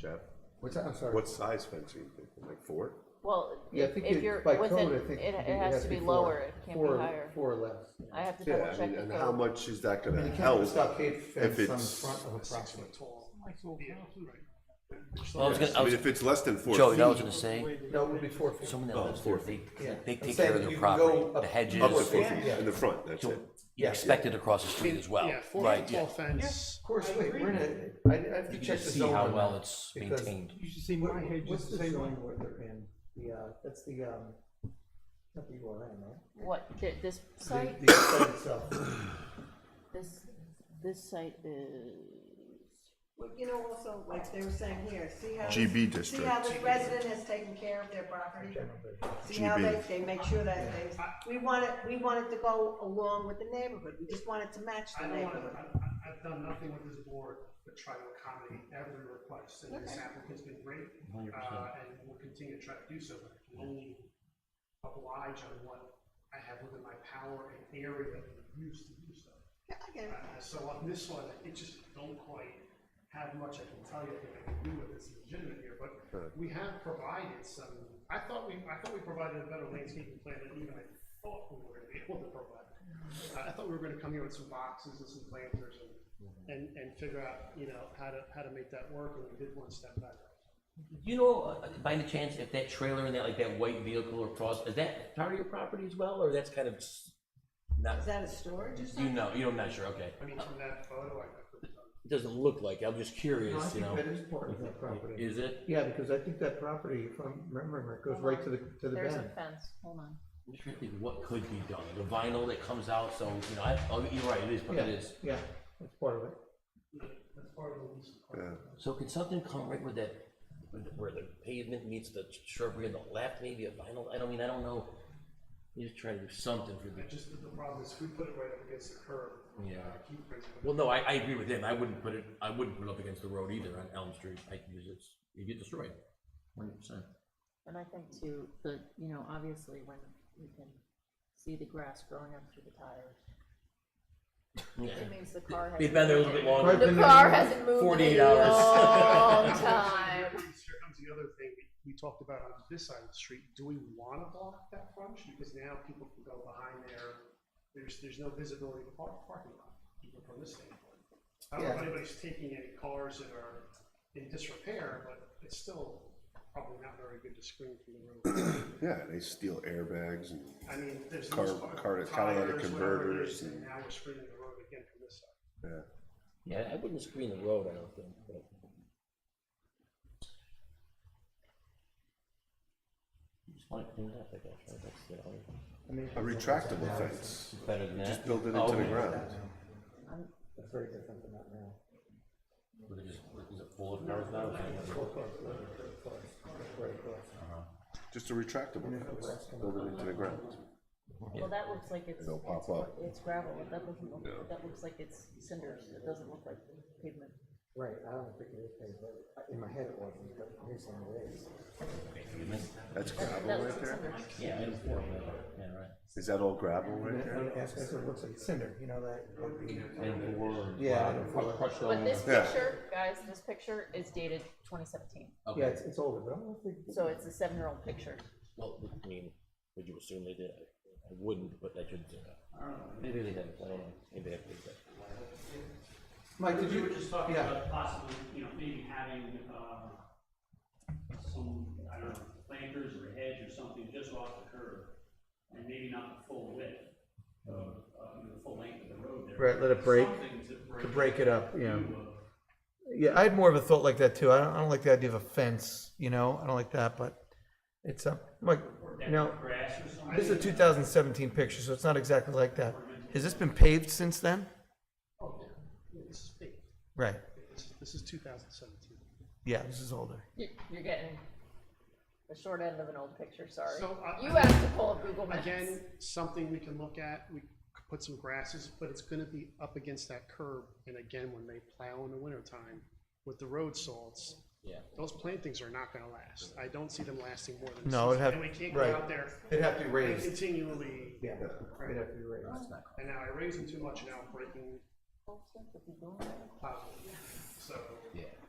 Jeff? What's that, I'm sorry? What size fence are you thinking, like four? Well, Yeah, I if think if it- you're by within, code, I think it, it'd it has to be four- lower, it can't be four- higher. Four or less. I have to Yeah, double I check mean, the and how code. much is that And gonna you can't put a help? stockade if fence on the it's- front of a property. oh, Well, I was gonna, I I mean, was, if it's less than four Joey, I was feet, gonna say, No, it would be four feet. someone that Oh, lives four there, they, Yeah. they I'm take care saying of you their can go property, up the to hedges. up to four Yeah, feet yeah. in the front, that's it. You expect it across the street as well, Yeah, four right, foot yeah. tall fence. Of course, wait, we're in a, I, I have to You check can the see zone how on well that, it's because maintained. You should see what my hedge What's is the the same zone one. where they're in? The, uh, that's the, um, not the URN, right? What, thi- this site, The, the site itself. this, this site is, Well, you know, also, like they were saying here, see how. GB See how district. this resident has taken care of their property. See how GB. they, they make sure that they, we want it, we want it to go along with the neighborhood, we just want it to match I the don't want neighborhood. to, I, I've done nothing with this board but try to accommodate every request, and this applicant's been great. Uh, and will continue to try to do so, but I can only oblige on what I have within my power and area that we use to do so. Yeah, I get it. Uh, So on this one, it just don't quite have much I can tell you that I can do with this legitimate here, but we have provided some, I thought we, I thought we provided a better landscaping plan than even I thought we were gonna be able to provide. Uh, I- I thought we were gonna come here with some boxes and some planters and, and, and figure out, you know, how to, how to make that work, and we did one step better. You know, uh, by any chance, if that trailer and that, like that white vehicle across, is that part of your property as well, or that's kind of s- Is not, that a storage or something? you know, you know, I'm not sure, okay. I mean, from that photo, I could, It doesn't look like, it, I'm just No, I curious, you think know, that is part of that property. is it? Yeah, because I think that property, if I'm remembering, right, goes right to the, to the there's a bend. fence, hold on. I'm just trying to think what could be done, the vinyl that comes out, so, you know, I, oh, you're right, it is, but Yeah, it is. yeah, that's part of it. that's part of the lease. Yeah. So could something come right where that, where the pavement meets the shrubbery on the left, maybe a vinyl, I don't mean, I don't know. You just try to do something for I the, just, the problem is, we put it right up against the curb. Yeah. I keep bringing it up. well, no, I, I agree with him, I wouldn't put it, I wouldn't put it up against the road either on Elm Street, I, because it's, you get destroyed. Hundred percent. And I think too, the, you know, obviously when you can see the grass growing up through the tires, Yeah. it means the car has. They've been there a little bit longer, The car hasn't moved in 48 a hours. long Actually, time. Here comes here comes the other thing we- we talked about on this side of the street, do we wanna block that front? street? Because now people can go behind there, there's, there's no visibility of the park- parking lot, even from this standpoint. I don't know if Yeah. anybody's taking any cars that are in disrepair, but it's still probably not very good to screen from the road. Yeah, they steal airbags and I mean, there's. Car- those car- car- catalytic tires, whatever it is, converters And and- now we're screening the road again from this side. yeah, I wouldn't screen the road, I don't think, but. Just want it cleaned up, I guess, right, that's the only. I mean, a retractable fence. Better than that. Just build it Oh, into the yeah. ground. That's very different than that now. Was it just, was it full of cars now? Four cars, right, right, cars, right, cars. Just a retractable fence. Build it into the ground. Well, that looks like it's, It'll pop it's- up. it's gravel, that doesn't look, that looks like it's cinders, it doesn't look like pavement. Right, I don't think it is paved, but in my head it wasn't, but here's some of it is. That's gravel That right looks like there? cinders. Yeah, I don't know. yeah, right. Is that all gravel right there? And that's- that's what it looks like cinder, you know, that. And four. Yeah, I don't feel like- But this Yeah. picture, guys, this picture is dated twenty seventeen, yeah, Okay, it's, it's older, but I don't think. so it's a seven-year-old picture. well, I mean, would you assume they did? I wouldn't, but I could, uh, maybe they didn't, I don't know, maybe I did, but. Mike, did We you? were just talking yeah. about possibly, you know, maybe having, um, some, I don't know, planters or hedge or something just off the curb, and maybe not the full width of, uh, you know, the full length of the road there. Right, let it break, Something to break. To break it up, yeah. the view of- Yeah, I had more of a thought like that too. I don't, I don't like the idea of a fence, you know, I don't like that, but it's, uh, like, you know, Grass or something. this is a two thousand seventeen picture, so it's not exactly like that. Has this been paved since then? Oh, yeah, Yeah, this is big, Right, This- this is two thousand seventeen. yeah, this is older. You- You're getting the short end of an old picture, sorry. So, I- You have to pull up Google Maps. Again, something we can look at, we could put some grasses, but it's gonna be up against that curb, and again, when they plow in the wintertime with the road salts. Yeah. Those plantings are not gonna last, I don't see them lasting more than. a No, it'd season, have- And we can't right. go out there It'd have to be and continually, Yeah, it'd have to be raised. and now I raise them too much, now I'm breaking If you go on. plow, so. Yeah.